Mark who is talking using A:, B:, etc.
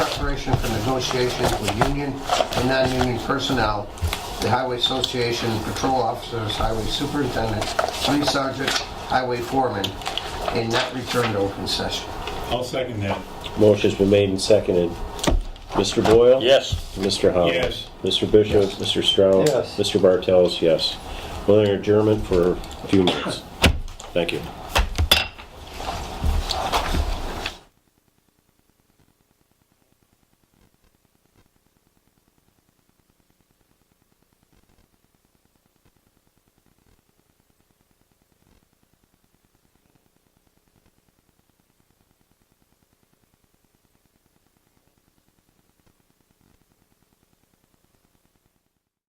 A: preparation for negotiations with union and non-union personnel, the Highway Association, patrol officers, highway superintendent, police sergeant, highway foreman, and not return to open session.
B: I'll second that.
C: Motion's been made and seconded. Mr. Boyle?
D: Yes.
C: Mr. Howell?
B: Yes.
C: Mr. Bishop? Mr. Strauss?
E: Yes.
C: Mr. Bartels, yes. We'll enter adjournment for a few minutes. Thank you.